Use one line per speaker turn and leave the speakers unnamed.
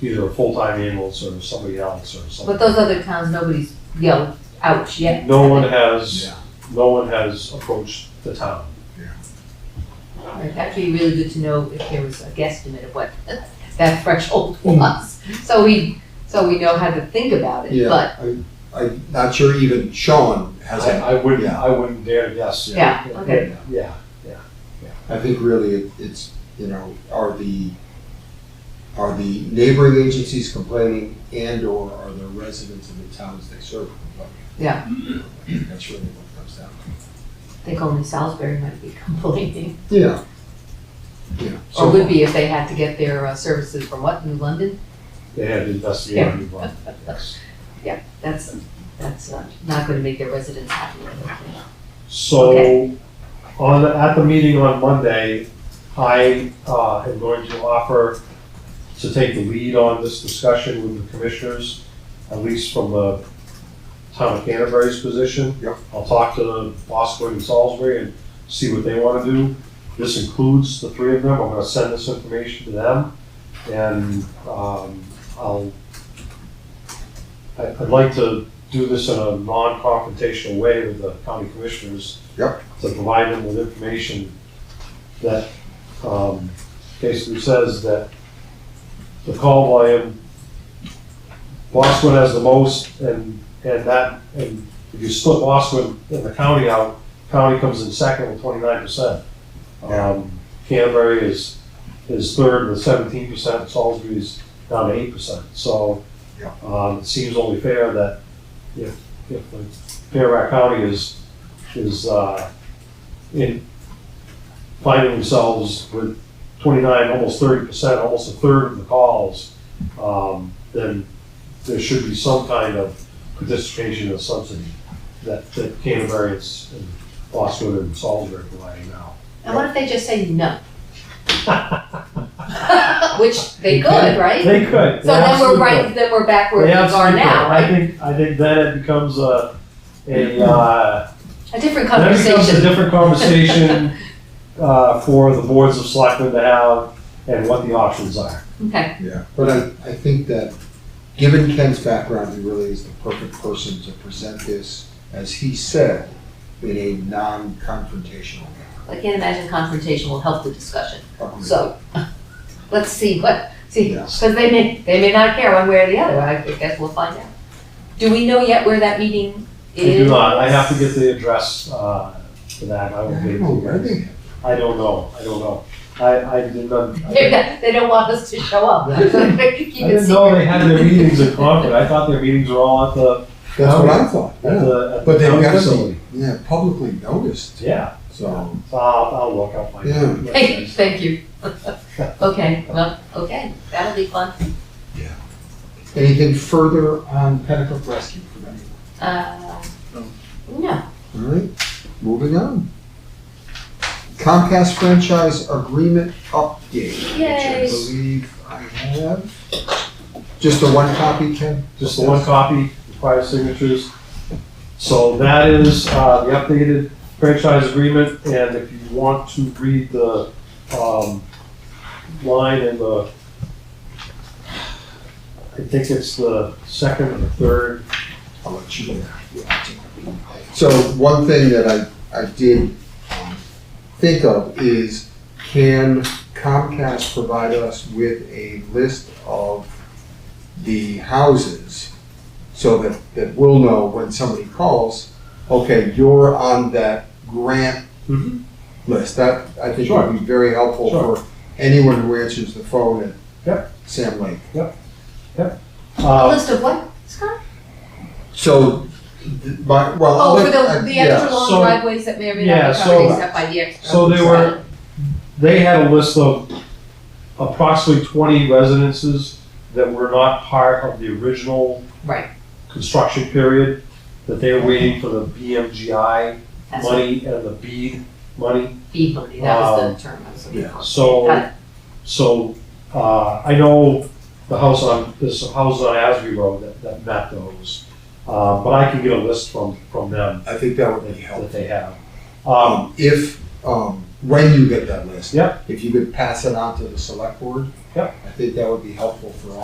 either a full-time ambulance or somebody else or
But
something.
those other towns, nobody's yelled ouch yet.
No one has,
Yeah,
no one has approached the town.
Right, That'd be really good to know if there was a guesstimate of what that threshold
Hmm.
was. So we, so we know how to think about it, but,
yeah, I, I'm not sure even Sean has
I,
that.
I wouldn't,
Yeah.
I wouldn't dare guess.
yeah, okay.
Yeah,
I think really it- it's, you know, are the, are the neighboring agencies complaining and or are the residents of the towns they serve complaining?
Yeah.
That's really what it comes down
I think only Salisbury might be complaining,
to. Yeah. Yeah.
or would be if they had to get their uh, services from what, New London?
they had investigated, it, but, yes.
That's, that's not, not gonna make their residents happy. I don't think.
So, on, the- at the meeting on Monday, I uh, am going to offer to take the lead on this discussion with the commissioners, at least from the town of Canterbury's position.
Yep.
I'll talk to Bosco and Salisbury and see what they want to do. This includes the three of them. I'm going to send this information to them. And um, I'll, I- I'd like to do this in a non-confrontational way with the county commissioners.
Yep.
To provide them with information that um, basically says that the call volume, Bosquen has the most, and, and that, and if you split Bosquen and the county out, county comes in second with twenty-nine percent. Um, Canterbury is, is third with seventeen percent, Salisbury is down to eight percent, so.
Yeah.
Um, it seems only fair that if, if the Fairback County is, is, uh, in finding themselves with twenty-nine, almost thirty percent, almost a third of the calls, um, then there should be some kind of participation or subsidy that, that Canterbury is- and Boston and Salisbury are providing now.
And what if they just say no? Which they could, right?
They could.
So then we're right, then we're back where
They
we are
absolutely
now,
could. I
right?
think, I think then it becomes a, a, uh,
A different
That becomes a
conversation.
different conversation uh, for the boards of selectmen to have and what the options are.
Okay,
Yeah, but I, I think that, given Ken's background, he really is the perfect person to present this, as he said, in a non-confrontational
I can't imagine confrontation will help the discussion,
manner.
so, let's see what, see,
Yeah.
because they may, they may not care one way or the other, I guess we'll find out. Do we know yet where that meeting
I
is?
do not, I have to get the address uh, for that, I will wait.
Oh, I think-
I don't know, I don't know. I, I didn't, un- I
They're
didn't-
not- They don't want us to show up,
Yeah.
so they can keep
I
it
didn't know they
secret.
had their meetings in Concord, I thought their meetings were all at the,
That's what I thought,
at
yeah.
the. at
But
the
they've got to
facility.
be, yeah, publicly noticed,
Yeah,
so.
so I'll, I'll look, I'll find
Yeah.
out.
Thank you, thank you. Okay, well, okay, that'll be fun.
Anything further on Pennacook Rescue from anyone?
Uh, No,
All right, moving on. Comcast franchise agreement update, which I
Yay.
believe I have. Just the one copy, Ken?
just the one copy, requires signatures. So that is uh, the updated franchise agreement, and if you want to read the um, line in the, I think it's the second or the third,
I'll let you know. So one thing that I, I did um, think of is can Comcast provide us with a list of the houses so that, that we'll know when somebody calls, okay, you're on that grant
Mhm.
list. That, I think
Sure.
would be very helpful
Sure.
for anyone who answers the phone at
Yep.
Sam Lake.
A
uh,
list of what, Scott?
So, th- but, well. I'll
Oh, for
let- I-
the, the
yeah.
extra long
so-
driveways that may or may
yeah,
not be covered
so-
except by the extra.
so they were- they had a list of approximately 20 residences that were not part of the original
Right,
construction period, that they were waiting for the BMGI
that's what
money and the BEAD money.
feed money, that was the term I was looking for. Got
So,
it.
so, uh, I know the house on, there's some houses on Asbury Road that, that met those. Uh, but I can get a list from, from them
I think that would
that,
be helpful.
that they have. Um,
if, um, when you get that list.
Yep.
If you could pass it on to the select board.
Yep.
I think that would be helpful for all.